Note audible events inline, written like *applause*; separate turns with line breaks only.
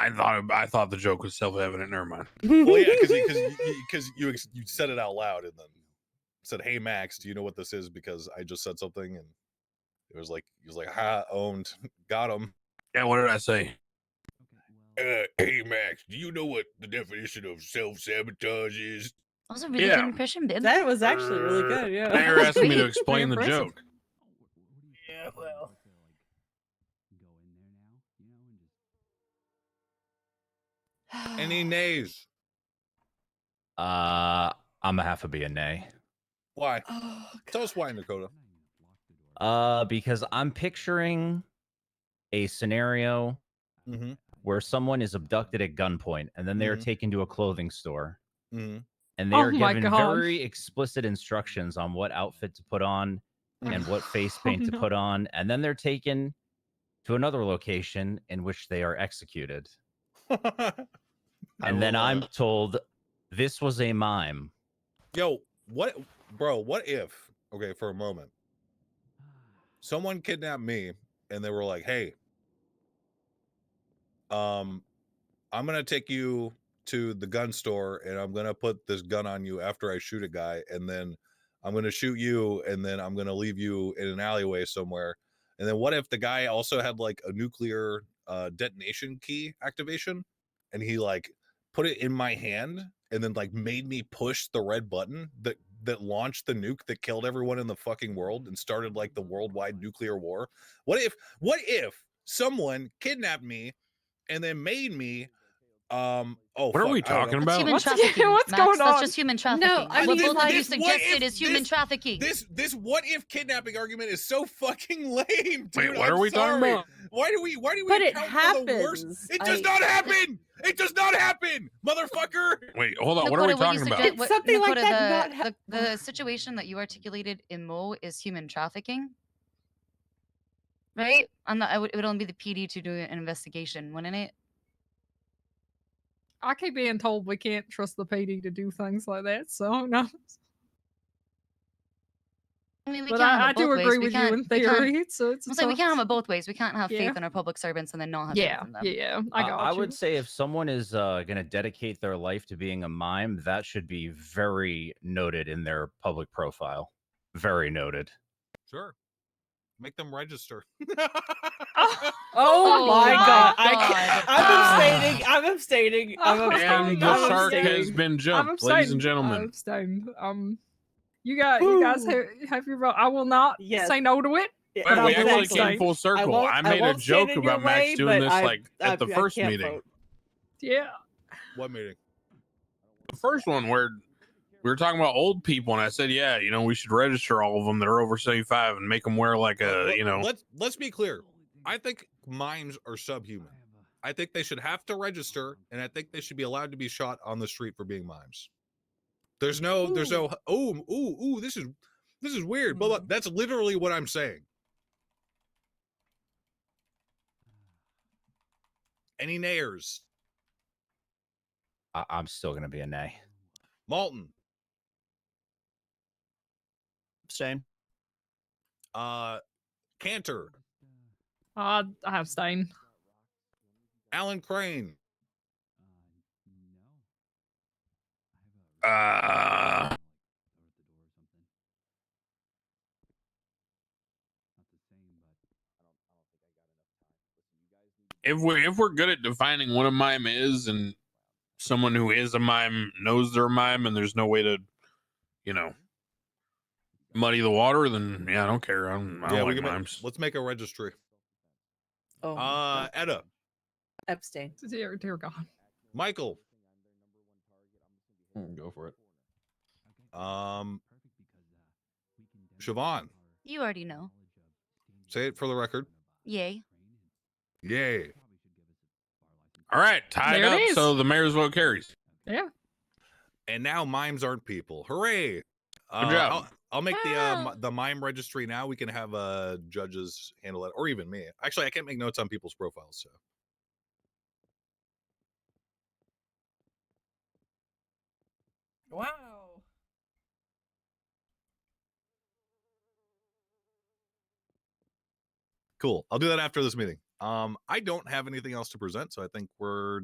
I thought I thought the joke was self evident. Never mind.
Well, yeah, because *laughs*
*laughs*
because you ex- you said it out loud and then said, "Hey Max, do you know what this is?" Because I just said something and it was like he was like, "Ha, owned, *laughs* got him."
Yeah, what did I say?
Uh, hey Max, do you know what the definition of self sabotage is?
That was a really
Yeah.
good impression, Bib.
that was actually really good.
Now
Yeah.
you're asking me to
Very
explain the
impressive.
joke.
Yeah, well.
Any nays?
Uh, I'm a half a B and nay.
*sighs* Why?
Oh,
Tell us why, Dakota.
Uh, because I'm picturing a scenario
Mm-hmm.
where someone is abducted at gunpoint and then they are
Mhm.
taken to a clothing store
Mm-hmm.
and they
Oh
are
my
given
God.
very explicit instructions on what outfit to put on and what face
Oh,
paint to
no.
put on, and then they're taken to another location in which they are executed.
mm-hmm. *laughs*
And then I'm told this was a mime.
Yo, what, bro? What if? Okay, for a moment, someone kidnapped me, and they were like, "Hey, um, I'm gonna take you to the gun store, and I'm gonna put this gun on you after I shoot a guy, and then I'm gonna shoot you, and then I'm gonna leave you in an alleyway somewhere." And then what if the guy also had like a nuclear uh, detonation key activation, and he like put it in my hand and then like made me push the red button that that launched the nuke that killed everyone in the fucking world and started like the worldwide nuclear war. What if what if someone kidnapped me and then made me um oh
What are we
fuck, I don't know.
talking
That's
about?
*laughs* What's-
human
yeah,
trafficking.
what's
Max.
going
That's
on?
just human trafficking.
I
what
mean,
both of
like-
you
this-
what if
suggested is human
this-
trafficking.
This this what if kidnapping argument is so fucking *laughs* lame, dude.
Wait, what
I'm
are we
sorry.
talking about?
Why do we why do we
But it
account for the worst-
happens.
It does
I-
not happen. It does not happen, motherfucker.
Wait, hold on. what are
Dakota,
we talking
you
about?
suggest-
It's something like
Dakota,
that
The,
not hap-
the, the situation that you articulated in Mo is human trafficking, right? And the, I would, it would only be the PD to do an investigation, wouldn't it?
I keep being told we can't trust the PD to do things like that. So *laughs* no,
I mean, we
but
can't have
I, I
it both
do
ways.
agree
We
with you
can't-
in
we can't-
theory. *laughs* So it's
I'm saying we can't
*laughs*
have it both ways. We can't have
Yeah.
faith in our public servants and then not have
Yeah,
faith in them.
yeah, I
Uh,
got
I
you.
would say if someone is uh, going to dedicate their life to being a mime, that should be very noted in their public profile. Very noted.
Sure. Make them
*laughs*
register.
Oh, my god! I
God. Ah.
can't- *laughs* I'm abstaining. I'm *laughs* abstaining. I'm
Oh,
And
abstaining.
And
the
I'm
I'm
shark
saying-
has
abstaining.
been
I'm
jumped, ladies and
abstaining, I'm
gentlemen.
abstaining. Um, you got you guys
Woo.
have, have your vote. I will not
Yes.
say no to it.
Yeah,
Wait,
but
we
I'm
actually
abstaining.
came full circle.
won't-
I,
I
made a
won't stand
joke
in your
about Max
way,
doing
but
this
I-
like
I-
at the
I
first
can't
meeting.
vote.
Yeah,
what meeting?
The first one where we were talking about old people, and I said, "Yeah, you know, we should register all of them that are over seventy-five and make them wear like
Look,
a,
let-
uh, you know."
let's let's be clear i think mimes are subhuman i think they should have to register and i think they should be allowed to be shot on the street for being mimes there's no there's no oh ooh ooh this is this is weird blah, blah. that's literally what i'm saying any nayers
I- I'm still going to be a nay.
malton
Abstain.
uh cantor
I I abstain.
alan crane
Uh, if we if we're good at defining what a mime is, and someone who is a mime knows they're a mime, and there's no way to, you know, muddy the water, then yeah, I don't care. I don't, I don't
yeah we
like
can make,
mimes.
let's make a registry
Oh,
uh edda
abstain.
Dear, dear God.
michael
Hmm, Go for it.
Um, Siobhan,
You already know.
say it for the record.
Yay.
Yay.
All right, tied
There it
up.
is.
So the mayor's vote carries.
Yeah.
And now mimes aren't people. Hooray. Uh,
job.
I'll, I'll make the uh,
Wow.
mi- the mime registry now. We can have uh, judges handle it, or even me. Actually, I can't make notes on people's profiles. So
Wow.
cool. I'll do that after this meeting. Um, I don't have anything else to present, so I think we're